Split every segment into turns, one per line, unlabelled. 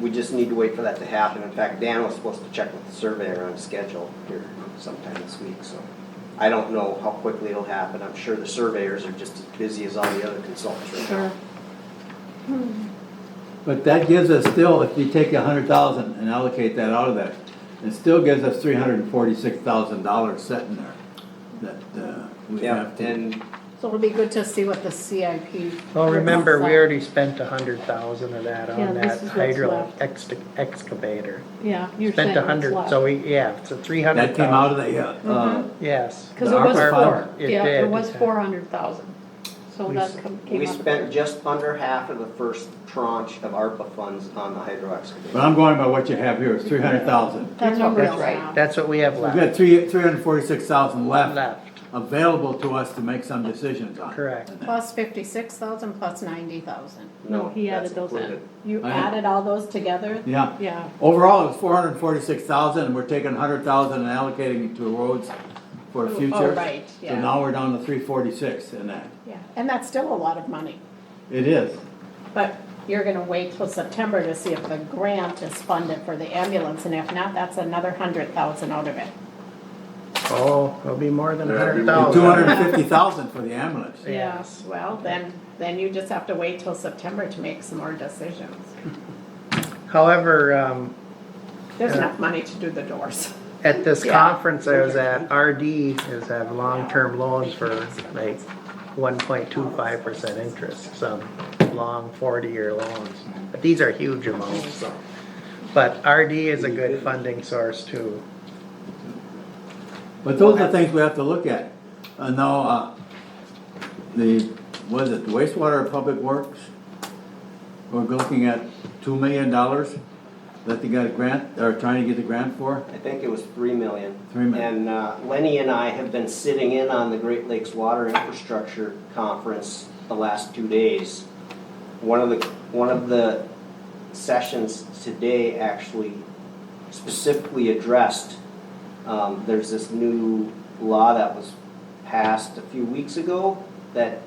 we just need to wait for that to happen. In fact, Dan was supposed to check with the surveyor on schedule here sometime this week, so. I don't know how quickly it'll happen. I'm sure the surveyors are just as busy as all the other consultants right now.
Sure.
But that gives us still, if you take a hundred thousand and allocate that out of that, it still gives us three hundred and forty-six thousand dollars sitting there that uh, we
Yeah,
have to.
and
So it'll be good to see what the CIP.
Well, remember, we
looks like.
already spent a hundred thousand of that
Yeah,
on
this
that
is what's
hydro
left.
ext- excavator.
Yeah, you're saying
Spent a
what's
hundred,
left.
so we, yeah, it's a three hundred
That
thousand.
came out of the, uh,
Mm-hmm.
uh,
Yes.
Cause it
The
was
ARPA
four,
fund.
It
yeah, it
did.
was four hundred thousand, so
We
that
s-
come- came
we
out of
spent
there.
just under half of the first tranche of ARPA funds on the hydro excavator.
but I'm going by what you have here, it's three hundred thousand.
That's what
That's
we're
right,
right.
that's what we have
We've
left,
got three, three hundred and forty-six thousand left
left,
available to us to make some decisions on.
correct.
Plus fifty-six thousand, plus ninety thousand.
No,
he added
that's
those in.
included.
You
I-
added all those together?
Yeah,
Yeah,
overall, it was four hundred and forty-six thousand and we're taking a hundred thousand and allocating it to roads for
Oh,
the future.
right,
So
yeah.
now we're down to three forty-six in that.
yeah, and that's still a lot of money,
It is.
but you're gonna wait till September to see if the grant is funded for the ambulance, and if not, that's another hundred thousand out of it.
Oh, it'll be more than a
There'll be
hundred
more than
Two hundred
thousand.
and fifty thousand for the ambulance.
Yes.
Well, then, then you just have to wait till September to make some more decisions.
However, um,
There's
Yeah.
enough money to do the doors.
at this
Yeah.
conference I was at, RD is have long-term loans for like one point two five percent interest, some long forty-year loans. But these are huge amounts, so. But RD is a good funding source too.
But those are things we have to look at. Uh, now, uh, the, was it wastewater public works? We're looking at two million dollars that they got a grant, or trying to get the grant for.
I think it was three million.
Three million.
And uh, Lenny and I have been sitting in on the Great Lakes Water Infrastructure Conference the last two days. One of the, one of the sessions today actually specifically addressed, um, there's this new law that was passed a few weeks ago that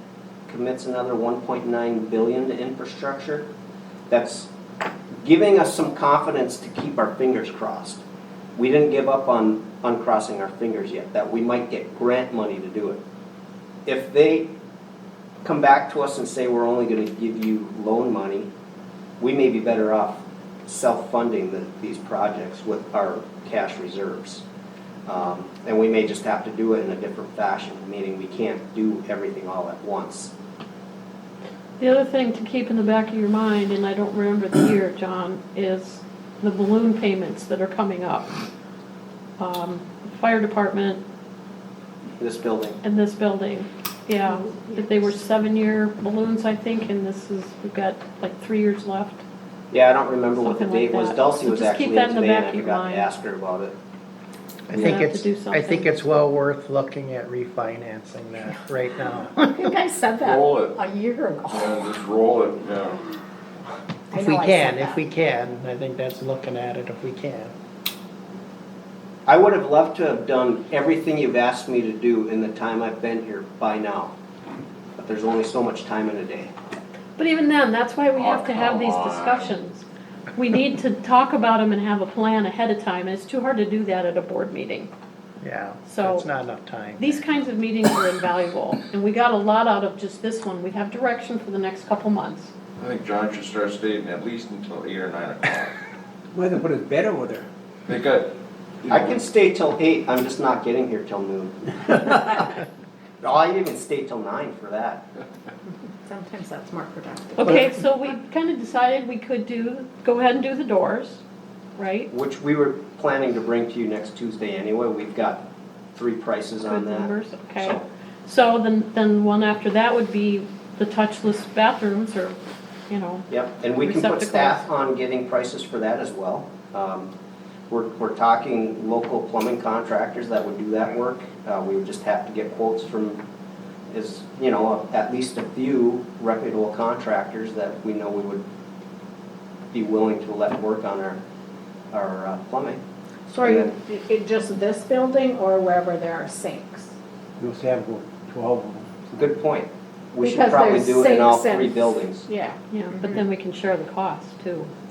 commits another one point nine billion to infrastructure. That's giving us some confidence to keep our fingers crossed. We didn't give up on, on crossing our fingers yet, that we might get grant money to do it. If they come back to us and say, we're only gonna give you loan money, we may be better off self-funding the, these projects with our cash reserves. Um, and we may just have to do it in a different fashion, meaning we can't do everything all at once.
The other thing to keep in the back of your mind, and I don't remember the year, John, is the balloon payments that are coming up. Um, Fire department
This building,
and this building, yeah, that they were seven-year balloons, I think, and this is, we've got like three years left.
yeah, I don't remember what the
Something like
date was,
that.
Dulcie
So
was
just
actually
keep
in
that in the
today and
back
I
of your
forgot to
mind.
ask her about it.
I
Yeah.
think
Have to
it's,
do
I think
something.
it's well worth looking at refinancing that right now.
I think I said that
Roll it.
a year ago.
Yeah, just roll it, yeah.
I
If we
know I
can,
said
if
that.
we can, I think that's looking at it if we can.
I would have loved to have done everything you've asked me to do in the time I've been here by now. But there's only so much time in a day.
But even then, that's why we
Oh,
have to have these
come on.
discussions. We need to talk about them and have a plan ahead of time, and it's too hard to do that at a board meeting.
Yeah,
So-
it's not enough time.
These kinds of meetings are invaluable, and we got a lot out of just this one. We have direction for the next couple months.
I think John should start staying at least until eight or nine o'clock.
Weather put it better with her.
They got, you
I can
know,
stay till eight, I'm just not getting here till noon. Oh, I even stay till nine for that.
Sometimes that's more productive.
Okay, so we kind of decided we could do, go ahead and do the doors, right?
Which we were planning to bring to you next Tuesday anyway. We've got three prices on
Good
that.
numbers, okay.
So-
So then, then one after that would be the touchless bathrooms or, you know,
Yep, and we can put
Receptacles.
staff on getting prices for that as well. Um, We're, we're talking local plumbing contractors that would do that work. Uh, We would just have to get quotes from, is, you know, at least a few reputable contractors that we know we would be willing to let work on our, our uh, plumbing.
So are you, i- i- just this building or wherever there are sinks?
You must have about twelve of them.
Good point. We should
Because
probably
there's
do it in all
sinks and-
three buildings.
Yeah.
yeah, but then we can share the cost too.